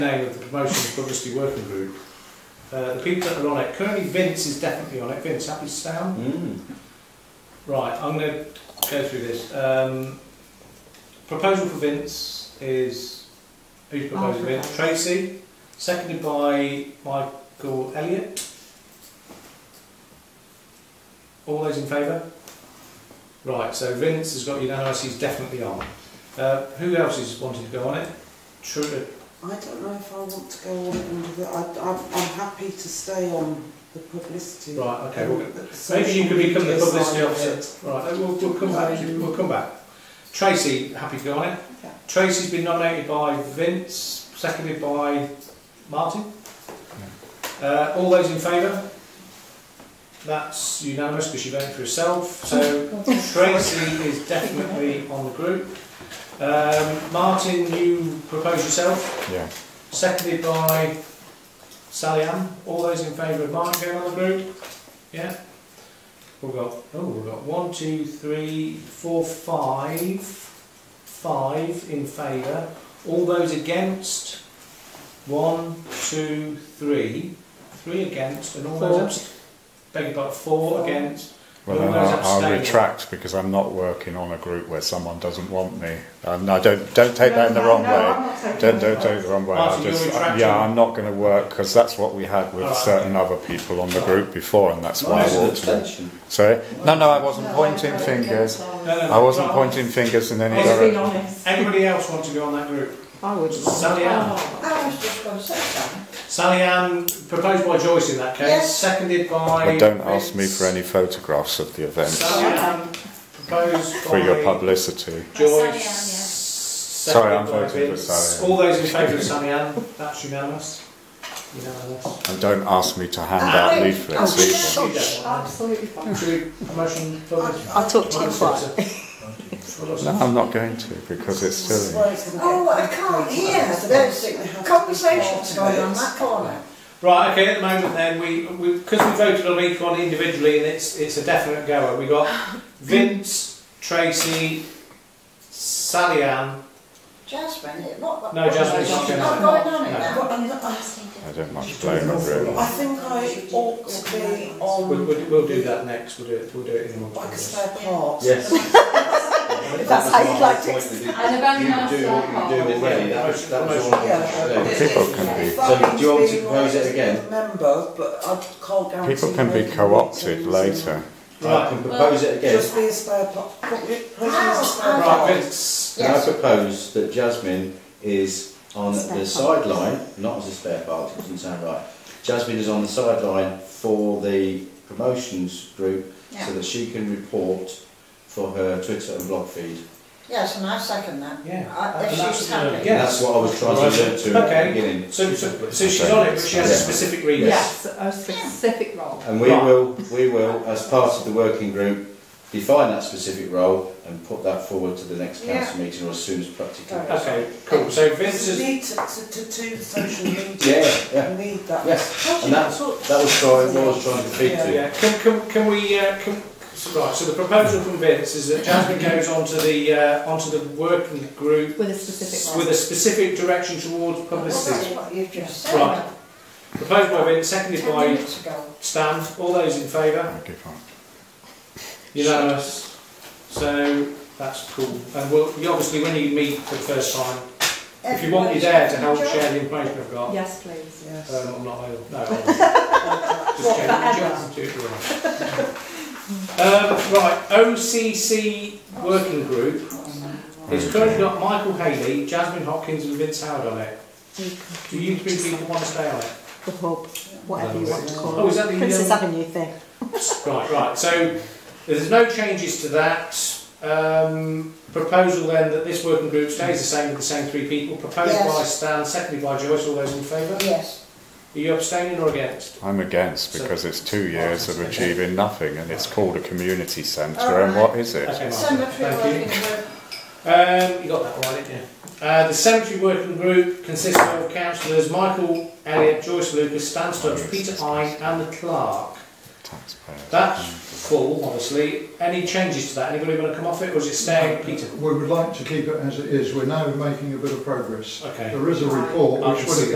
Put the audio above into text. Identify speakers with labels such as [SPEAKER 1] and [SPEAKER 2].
[SPEAKER 1] name of the promotion publicity working group. Uh, the people that are on it, currently Vince is definitely on it. Vince, happy to stay on?
[SPEAKER 2] Mm.
[SPEAKER 1] Right, I'm going to go through this. Um, proposal for Vince is, who's proposing
[SPEAKER 3] I'll
[SPEAKER 1] Vince?
[SPEAKER 3] propose.
[SPEAKER 1] Tracy, seconded by Michael Elliott. All those in favour? Right, so Vince has got unanimous, he's definitely on. Uh, who else is wanting to go on it? Tru- uh,
[SPEAKER 3] I don't know if I want to go on under the. I, I'm, I'm happy to stay on the publicity.
[SPEAKER 1] right, okay, we'll,
[SPEAKER 3] But the social
[SPEAKER 1] Maybe you could become the
[SPEAKER 3] media
[SPEAKER 1] publicity
[SPEAKER 3] side of
[SPEAKER 1] officer.
[SPEAKER 3] it.
[SPEAKER 1] Right, uh, we'll, we'll come back. We'll come back. Tracy, happy to go on it.
[SPEAKER 3] Okay.
[SPEAKER 1] Tracy's been nominated by Vince, seconded by Martin. Uh, all those in favour? That's unanimous because you're voting for yourself. So Tracy is definitely on the group. Um, Martin, you propose yourself,
[SPEAKER 2] Yeah.
[SPEAKER 1] seconded by Sally Ann. All those in favour of Martin going on the group? Yeah. We've got oh, we've got one, two, three, four, five, five in favour. All those against? One, two, three, three against, and all those
[SPEAKER 3] Four.
[SPEAKER 1] abst- beg your pardon, four
[SPEAKER 3] Four.
[SPEAKER 1] against.
[SPEAKER 2] Well,
[SPEAKER 1] All
[SPEAKER 2] then
[SPEAKER 1] those
[SPEAKER 2] I'll, I'll
[SPEAKER 1] abstaining.
[SPEAKER 2] retract because I'm not working on a group where someone doesn't want me. And I don't don't take that in the
[SPEAKER 3] No,
[SPEAKER 2] wrong
[SPEAKER 3] no,
[SPEAKER 2] way.
[SPEAKER 3] I'm not taking
[SPEAKER 2] Don't
[SPEAKER 3] that.
[SPEAKER 2] don't take the wrong way.
[SPEAKER 1] Martin,
[SPEAKER 2] I'll
[SPEAKER 1] you're
[SPEAKER 2] just,
[SPEAKER 1] retracting.
[SPEAKER 2] yeah, I'm not going to work because that's what we had with
[SPEAKER 1] All right.
[SPEAKER 2] certain other people on the
[SPEAKER 1] All
[SPEAKER 2] group before, and that's why
[SPEAKER 4] Mine
[SPEAKER 2] I
[SPEAKER 4] is an
[SPEAKER 2] walked away.
[SPEAKER 4] abstention.
[SPEAKER 2] Sorry, no, no, I wasn't
[SPEAKER 3] No,
[SPEAKER 2] pointing
[SPEAKER 3] I'm not
[SPEAKER 2] fingers.
[SPEAKER 3] against
[SPEAKER 1] No,
[SPEAKER 3] it.
[SPEAKER 1] no, no.
[SPEAKER 2] I wasn't
[SPEAKER 1] Right.
[SPEAKER 2] pointing fingers in any
[SPEAKER 1] Let's
[SPEAKER 2] direction.
[SPEAKER 5] honest.
[SPEAKER 1] Anybody else want to go on that group?
[SPEAKER 5] I would.
[SPEAKER 1] Sally Ann.
[SPEAKER 5] Oh.
[SPEAKER 4] I was just going to say that.
[SPEAKER 1] Sally Ann, proposed by Joyce in that case,
[SPEAKER 4] Yes.
[SPEAKER 1] seconded by.
[SPEAKER 2] Well, don't ask me
[SPEAKER 1] Vince.
[SPEAKER 2] for any photographs of the event
[SPEAKER 1] Sally Ann, proposed
[SPEAKER 2] for your
[SPEAKER 1] by
[SPEAKER 2] publicity.
[SPEAKER 1] Joyce.
[SPEAKER 6] Sally Ann, yeah.
[SPEAKER 1] Sorry,
[SPEAKER 2] I'm voting for Sally Ann.
[SPEAKER 1] All those in favour of Sally Ann, that's unanimous. Unanimous.
[SPEAKER 2] And don't ask me to hand
[SPEAKER 4] I-
[SPEAKER 2] out leaflets
[SPEAKER 4] I-
[SPEAKER 2] either.
[SPEAKER 1] You don't want
[SPEAKER 5] Absolutely
[SPEAKER 1] that.
[SPEAKER 5] fine.
[SPEAKER 1] Should we promotion?
[SPEAKER 4] I'll
[SPEAKER 5] talk to you quiet.
[SPEAKER 2] No, I'm not going to because it's silly.
[SPEAKER 4] Oh, I can't hear. There's conversations going on that corner.
[SPEAKER 1] Right, okay, at the moment then, we, we, because we voted on each one individually and it's, it's a definite goer, we got Vince, Tracy, Sally Ann,
[SPEAKER 4] Jasmine, it- what?
[SPEAKER 1] No, Jasmine's not going
[SPEAKER 4] Not
[SPEAKER 1] on.
[SPEAKER 4] going on it
[SPEAKER 1] No.
[SPEAKER 4] now.
[SPEAKER 3] But I'm not, I,
[SPEAKER 2] I don't much blame them really.
[SPEAKER 3] I think I ought to be on
[SPEAKER 1] we'll, we'll, we'll do that next, we'll do it, we'll do it in a
[SPEAKER 3] like a
[SPEAKER 1] month.
[SPEAKER 3] spare part.
[SPEAKER 4] Yes.
[SPEAKER 5] That's how you'd like to
[SPEAKER 6] And about
[SPEAKER 4] You do
[SPEAKER 1] uh,
[SPEAKER 4] what you do already, that was, that was all I wanted to
[SPEAKER 3] Yeah.
[SPEAKER 4] say.
[SPEAKER 2] People can be-
[SPEAKER 3] If that
[SPEAKER 4] So, do you want me to
[SPEAKER 3] means being
[SPEAKER 4] propose it
[SPEAKER 3] like a
[SPEAKER 4] again?
[SPEAKER 3] Member, but I can't guarantee.
[SPEAKER 2] People can be
[SPEAKER 3] making
[SPEAKER 2] co-opted
[SPEAKER 3] meetings
[SPEAKER 2] later.
[SPEAKER 4] I
[SPEAKER 1] Right,
[SPEAKER 4] can propose it
[SPEAKER 3] and
[SPEAKER 4] again.
[SPEAKER 3] Just be a spare part. Put it- put it as a spare part.
[SPEAKER 1] right, Vince,
[SPEAKER 4] Can I Yes.
[SPEAKER 2] propose
[SPEAKER 4] That Jasmine is on
[SPEAKER 5] Spare
[SPEAKER 4] the
[SPEAKER 5] part.
[SPEAKER 4] sideline, not as a spare part, it doesn't sound right. Jasmine is on the sideline for the promotions group so that she can report for her Twitter and blog feed.
[SPEAKER 7] Yes, and I second that.
[SPEAKER 1] yeah.
[SPEAKER 7] Uh,
[SPEAKER 1] And
[SPEAKER 7] If
[SPEAKER 1] that's-
[SPEAKER 7] she's happy.
[SPEAKER 1] yeah.
[SPEAKER 4] And that's what I was trying to allude to at
[SPEAKER 1] Okay.
[SPEAKER 4] the beginning.
[SPEAKER 1] So, so, so she's on it, but she has a specific reason.
[SPEAKER 5] Yes, a specific role.
[SPEAKER 4] And we
[SPEAKER 1] Right.
[SPEAKER 4] will, we will, as part of the working group, define that specific role and put that forward to the next council meeting or as soon as practically
[SPEAKER 3] Right.
[SPEAKER 4] possible.
[SPEAKER 1] Okay, cool, so Vince
[SPEAKER 3] You
[SPEAKER 1] is,
[SPEAKER 3] need to, to, to do the social media.
[SPEAKER 4] Yeah, yeah,
[SPEAKER 3] You need that.
[SPEAKER 4] yes.
[SPEAKER 3] How do
[SPEAKER 4] And
[SPEAKER 3] you
[SPEAKER 4] that,
[SPEAKER 3] talk-
[SPEAKER 4] that was trying, what I was trying to feed
[SPEAKER 3] Yeah.
[SPEAKER 4] to.
[SPEAKER 1] yeah, can, can, can we, uh, can, right, so the proposal from Vince is that Jasmine goes onto the, uh, onto the working group
[SPEAKER 5] With a specific
[SPEAKER 1] with
[SPEAKER 5] role.
[SPEAKER 1] a specific direction towards publicity.
[SPEAKER 7] That's what you've just said.
[SPEAKER 1] Right. Proposed by Vince, seconded
[SPEAKER 7] Ten
[SPEAKER 1] by
[SPEAKER 7] minutes ago.
[SPEAKER 1] Stan. All those in favour?
[SPEAKER 2] I give up.
[SPEAKER 1] Unanimous. So that's cool. And we'll, you obviously, when you meet for the first time, if you want me there to help share the information I've got,
[SPEAKER 5] Yes, please.
[SPEAKER 3] Yes.
[SPEAKER 1] um, I'm not ill. No, I'm not. just joking. Just do it right. Um, right, OCC working group. It's currently got Michael Haley, Jasmine Hopkins, and Vince Howard on it. Do you three people want to stay on it?
[SPEAKER 5] The hub, whatever you want to
[SPEAKER 1] Oh,
[SPEAKER 5] call
[SPEAKER 1] is
[SPEAKER 5] it.
[SPEAKER 1] that the
[SPEAKER 5] Princess
[SPEAKER 1] um,
[SPEAKER 5] Avenue thing.
[SPEAKER 1] Right, right. So there's no changes to that. Um, proposal then that this working group stays the same with the same three people. Proposed
[SPEAKER 7] Yes.
[SPEAKER 1] by Stan, seconded by Joyce. All those in favour?
[SPEAKER 7] Yes.
[SPEAKER 1] Are you abstaining or against?
[SPEAKER 2] I'm against
[SPEAKER 1] So-
[SPEAKER 2] because it's two years of
[SPEAKER 1] Okay.
[SPEAKER 2] achieving nothing and it's called a community centre
[SPEAKER 7] All
[SPEAKER 2] and
[SPEAKER 7] right.
[SPEAKER 2] what is it?
[SPEAKER 1] Okay, Martin.
[SPEAKER 7] Cemetery working
[SPEAKER 1] Thank you.
[SPEAKER 7] group.
[SPEAKER 1] Um, you got that right, didn't you? Uh, the cemetery working group consists of councillors Michael Elliott, Joyce Lucas, Stan Stubbs, Peter Hine, and the clerk.
[SPEAKER 2] Taxpayers.
[SPEAKER 1] That's full, obviously. Any changes to that? Anybody want to come off it, or is it
[SPEAKER 8] Uh,
[SPEAKER 1] staying, Peter?
[SPEAKER 8] We would like to keep it as it is. We're now making a bit of progress.
[SPEAKER 1] Okay.
[SPEAKER 8] There is a report
[SPEAKER 1] I
[SPEAKER 8] which
[SPEAKER 1] can
[SPEAKER 8] will
[SPEAKER 1] see